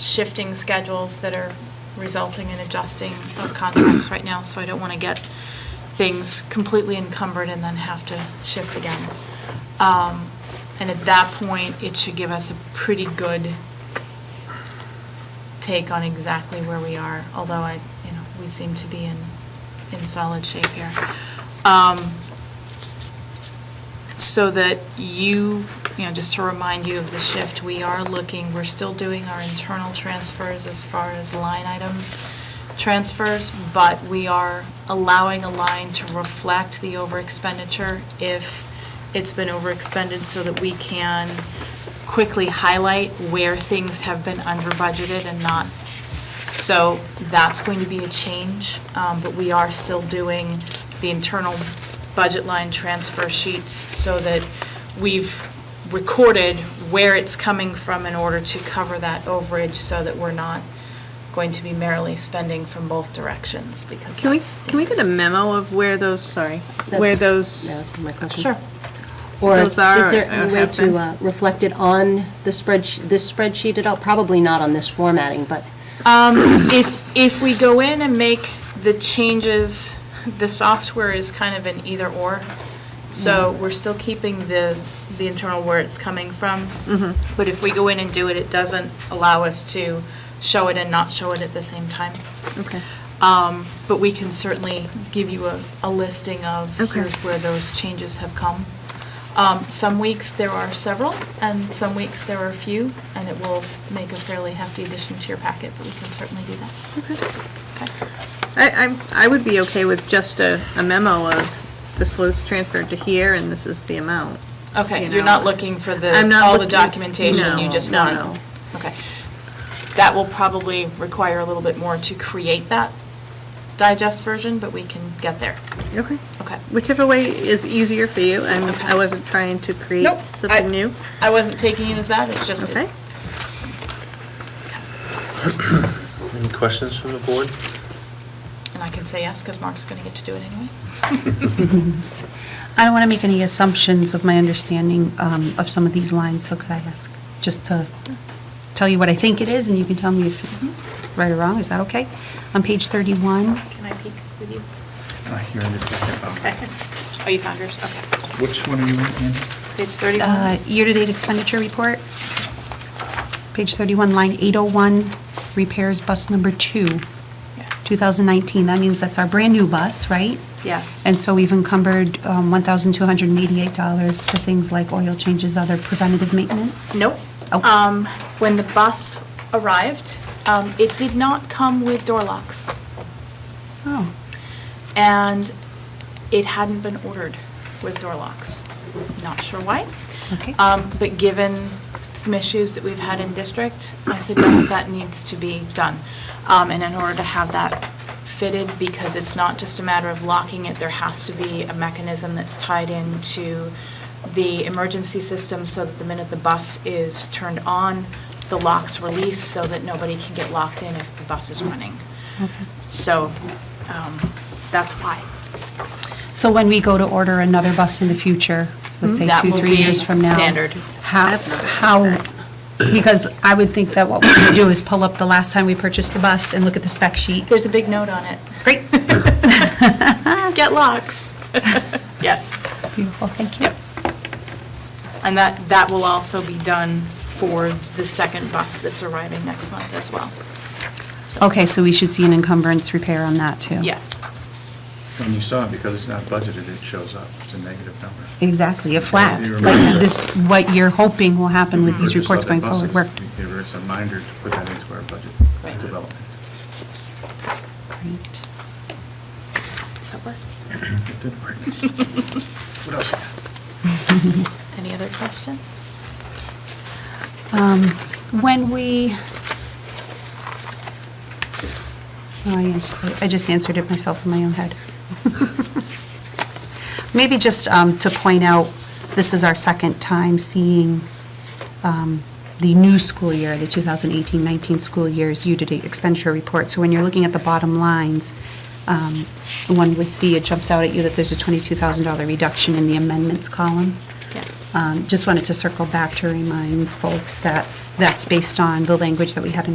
shifting schedules that are resulting in adjusting of contracts right now, so I don't want to get things completely encumbered and then have to shift again. Um, And at that point, it should give us a pretty good take on exactly where we are, although I, you know, we seem to be in, in solid shape here. Um, so that you, you know, just to remind you of the shift, we are looking, we're still doing our internal transfers as far as line item transfers, but we are allowing a line to reflect the over expenditure if it's been over expended so that we can quickly highlight where things have been under budgeted and not. So that's going to be a change, um, but we are still doing the internal budget line transfer sheets so that we've recorded where it's coming from in order to cover that overage so that we're not going to be merely spending from both directions because. Can we, that's can we get a memo of where those, sorry, where Yeah, those, that's my question. Sure. Or is Those are there or a way have been. to uh, reflect it on the spreadsheet, this spreadsheet at all? Probably not on this formatting, but If, if we go in and make the changes, the software is kind of an either-or. So we're still keeping the, the internal where it's coming from. But if we go in and do it, it doesn't allow us to show it and not show it at the same time. okay. But we can certainly give you a, a listing of Okay. here's where those changes have come. Um, Some weeks there are several, and some weeks there are a few, and it will make a fairly hefty addition to your packet, but we can certainly do that. I, I'm- I would be okay with just a a memo of this was transferred to here and this is the amount. Okay, you you're know. not looking for I'm the, not all the looking- documentation, no, you just no, want. no. Okay. That will probably require a little bit more to create that digest version, but we can get there. Okay. Okay. Whichever way is easier for you, I'm, Okay. I wasn't trying to create Nope, I- something new, I wasn't taking it as that, it's just, okay? it- Any questions from the board? and I can say yes, because Mark's going to get to do it anyway. I don't want to make any assumptions of my understanding um, of some of these lines, so could I ask, just to tell you what I think it is, and you can tell me if it's right or wrong, is that okay? On page 31, Can I peek with you? Uh, Here in the packet. Oh, you found yours, okay. Which one are you in? Page 31. uh, year-to-date expenditure report, page 31, line 801, repairs bus number two, Yes. 2019. That means that's our brand-new bus, right? Yes. And so we've encumbered um, $1,288 for things like oil changes, other preventative maintenance? Nope. Oh. Um, When the bus arrived, um, it did not come with door locks. Oh, and it hadn't been ordered with door locks. Not sure why. okay. Um, But given some issues that we've had in district, I said, no, that needs to be done. Um, And in order to have that fitted, because it's not just a matter of locking it, there has to be a mechanism that's tied into the emergency system so that the minute the bus is turned on, the locks release so that nobody can get locked in if the bus is running. So um, that's why. So when we go to order another bus in the future, let's Mm-hmm. say That two, will three be years from now. standard. How, how, because I would think that what we should do is pull up the last time we purchased the bus and look at the spec sheet. There's a big note on it. Great, Ah, Get locks. Yes. beautiful, thank you. And that, that will also be done for the second bus that's arriving next month as well. Okay, so we should see an encumbrance repair on that, too? Yes. When you saw it, because it's not budgeted, it shows up. It's a negative number. Exactly, a flat, Yeah, you're like right. this, what you're hoping will happen with these Purchase reports other going forward. buses. Work. It's a reminder to put that into our budget Right. development. Great. So, It did work. What else? you got? Any other questions? Um, When we, oh, I ans- I just answered it myself in my own head. Maybe just um, to point out, this is our second time seeing um, the new school year, the 2018-19 school year's year-to-date expenditure report. So when you're looking at the bottom lines, um, one would see, it jumps out at you that there's a $22,000 reduction in the amendments column. Yes. Um, Just wanted to circle back to remind folks that that's based on the language that we had in our